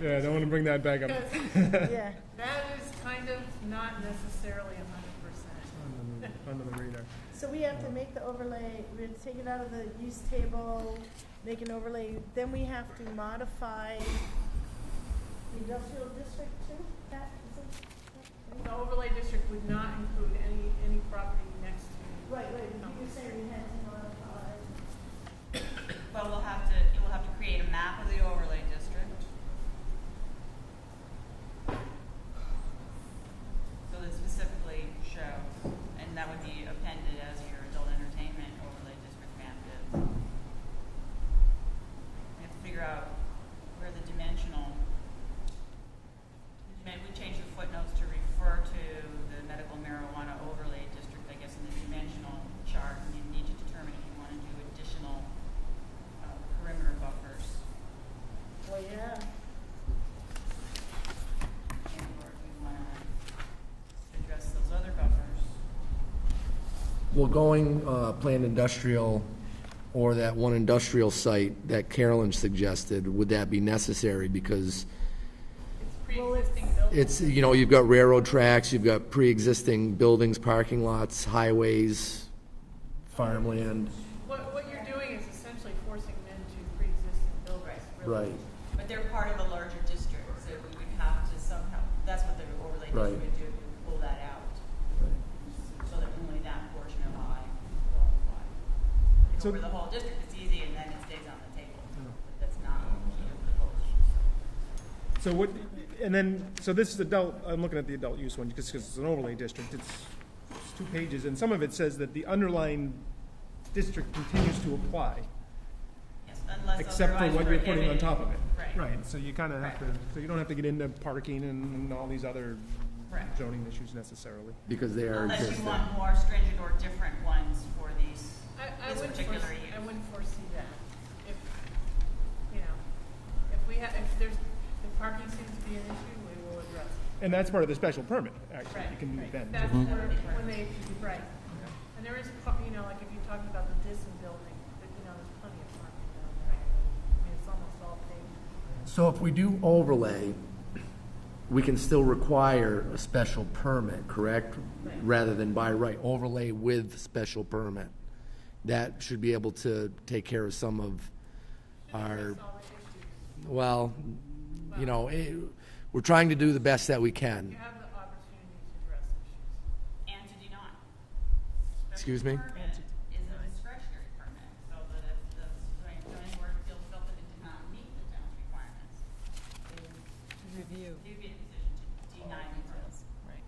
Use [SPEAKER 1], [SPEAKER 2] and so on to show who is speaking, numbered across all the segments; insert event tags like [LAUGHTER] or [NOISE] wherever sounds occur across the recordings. [SPEAKER 1] Yeah, I don't want to bring that
[SPEAKER 2] [LAUGHS]
[SPEAKER 1] back up.
[SPEAKER 3] Yeah,
[SPEAKER 2] That is kind of not necessarily a hundred percent.
[SPEAKER 1] Under the- Under the radar.
[SPEAKER 3] so we have to make the overlay, we have to take it out of the use table, make an overlay, then we have to modify the industrial district too, that, is it?
[SPEAKER 2] The overlay district would not include any, any property next to.
[SPEAKER 3] Right, right, you say we had to modify,
[SPEAKER 4] But we'll have to, you will have to create a map of the overlay district. So that specifically shows, and that would be appended as your adult entertainment overlay district map is. We have to figure out where the dimensional, dimen- we changed the footnotes to refer to the medical marijuana overlay district, I guess, in the dimensional chart, and you need to determine if you want to do additional uh, perimeter buffers
[SPEAKER 3] well, yeah,
[SPEAKER 4] and or if you want to address those other buffers.
[SPEAKER 5] Well, going uh, planned industrial or that one industrial site that Carolyn suggested, would that be necessary? Because
[SPEAKER 2] It's pre-existing buildings.
[SPEAKER 5] it's, you know, you've got railroad tracks, you've got pre-existing buildings, parking lots, highways, farmland.
[SPEAKER 2] What, what you're doing is essentially forcing men to pre-existing buildings. really.
[SPEAKER 5] Right.
[SPEAKER 4] But they're part of a larger district, so we would have to somehow, that's what the overlay district
[SPEAKER 5] Right.
[SPEAKER 4] would do, would pull that out. So that only that portion of I will apply. If
[SPEAKER 1] So-
[SPEAKER 4] it were the whole district, it's easy and then it stays on the table.
[SPEAKER 1] Yeah.
[SPEAKER 4] But that's not the whole issue.
[SPEAKER 1] So what, and then, so this is adult, I'm looking at the adult use one, because it's an overlay district, it's, it's two pages, and some of it says that the underlying district continues to apply,
[SPEAKER 4] Yes, unless
[SPEAKER 1] except for
[SPEAKER 4] otherwise
[SPEAKER 1] what you're putting on
[SPEAKER 4] prohibited.
[SPEAKER 1] top of it.
[SPEAKER 4] Right.
[SPEAKER 1] Right, so you kind of have to, so you don't have to get into parking and, and all these other
[SPEAKER 4] Correct.
[SPEAKER 1] zoning issues necessarily.
[SPEAKER 5] Because they are
[SPEAKER 4] Unless you
[SPEAKER 5] existing.
[SPEAKER 4] want more stringent or different ones for these.
[SPEAKER 2] I, I
[SPEAKER 4] This
[SPEAKER 2] wouldn't
[SPEAKER 4] particular
[SPEAKER 2] foresee, I
[SPEAKER 4] use.
[SPEAKER 2] wouldn't foresee that. If, you know, if we have, if there's, if parking seems to be an issue, we will address it.
[SPEAKER 1] And that's part of the special permit, actually, you
[SPEAKER 2] Right,
[SPEAKER 1] can do
[SPEAKER 2] right.
[SPEAKER 1] then.
[SPEAKER 2] That's
[SPEAKER 4] Mhm.
[SPEAKER 2] where, when they, right. And there is, par- you know, like if you're talking about the Disney building, that, you know, there's plenty of parking down there. I mean, it's almost all paved.
[SPEAKER 5] So if we do overlay, we can still require a special permit, correct? Rather than by right, overlay with special permit. That should be able to take care of some of our,
[SPEAKER 2] All the issues.
[SPEAKER 5] well, you know, eh, we're trying to do the best that we can.
[SPEAKER 2] You have the opportunity to address issues.
[SPEAKER 4] And to do not.
[SPEAKER 5] Excuse me?
[SPEAKER 4] Special permit Is a discretionary permit, so that if the zoning zoning board feels felt that it did not meet the town's requirements,
[SPEAKER 6] Review.
[SPEAKER 4] they would be in a position to deny the permit.
[SPEAKER 6] Right.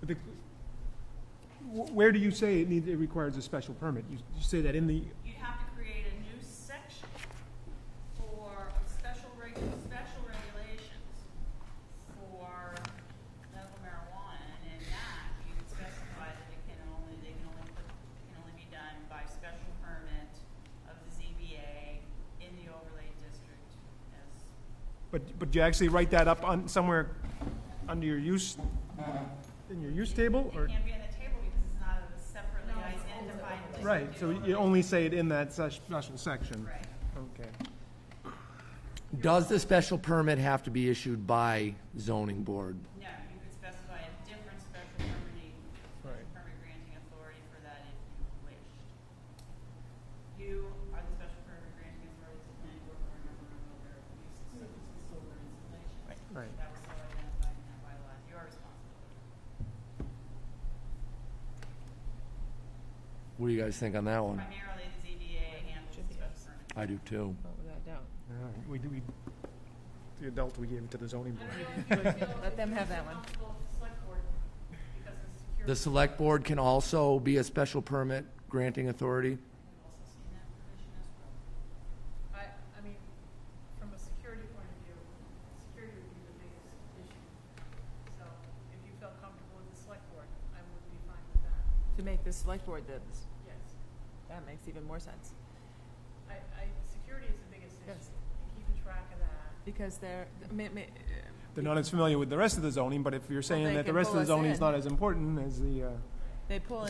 [SPEAKER 1] But the- wh- Where do you say it needs, it requires a special permit? You you say that in the,
[SPEAKER 4] You'd have to create a new section for special regu, special regulations for medical marijuana, and in that, you would specify that it can only, they can only put, it can only be done by special permit of the ZBA in the overlay district as,
[SPEAKER 1] But, but you actually write that up on, somewhere under your use, in your use table,
[SPEAKER 4] it
[SPEAKER 1] or?
[SPEAKER 4] can't be on the table because it's not a separately
[SPEAKER 2] No, it's
[SPEAKER 4] identified district.
[SPEAKER 1] Right, so you only say it in that such special section?
[SPEAKER 4] Right.
[SPEAKER 1] Okay.
[SPEAKER 5] Does the special permit have to be issued by zoning board?
[SPEAKER 4] No, you could specify a different special permitting,
[SPEAKER 1] Right.
[SPEAKER 4] permit granting authority for that if you wished. You are the special permit granting authority to planning board for a number of other uses such as solar installation.
[SPEAKER 1] Right.
[SPEAKER 4] That was so identified in that bylaw, it's your responsibility.
[SPEAKER 5] What do you guys think on that one?
[SPEAKER 4] Primarily, the ZBA handles the special permit.
[SPEAKER 5] I do too.
[SPEAKER 6] Oh, without doubt.
[SPEAKER 1] All right, We, do- we, the adult, we gave it to the zoning
[SPEAKER 2] I
[SPEAKER 1] board.
[SPEAKER 6] [LAUGHS]
[SPEAKER 2] don't know if you feel.
[SPEAKER 6] Let them have that one.
[SPEAKER 2] If you feel comfortable with the select board, because it's secure.
[SPEAKER 5] The select board can also be a special permit granting authority?
[SPEAKER 4] I've also seen that provision as well.
[SPEAKER 2] I, I mean, from a security point of view, security would be the biggest issue. So if you felt comfortable with the select board, I would be fine with that,
[SPEAKER 6] To make the select board the,
[SPEAKER 2] yes.
[SPEAKER 6] that makes even more sense.
[SPEAKER 2] I, I, security is the biggest issue,
[SPEAKER 6] Yes.
[SPEAKER 2] and keeping track of that.
[SPEAKER 6] Because they're, I mean, I mean, uh,
[SPEAKER 1] They're not as familiar with the rest of the zoning, but if you're saying
[SPEAKER 6] they
[SPEAKER 1] that the
[SPEAKER 6] can
[SPEAKER 1] rest of
[SPEAKER 6] pull
[SPEAKER 1] the
[SPEAKER 6] us
[SPEAKER 1] zoning is
[SPEAKER 6] in.
[SPEAKER 1] not as important as the, uh,
[SPEAKER 2] they pull in.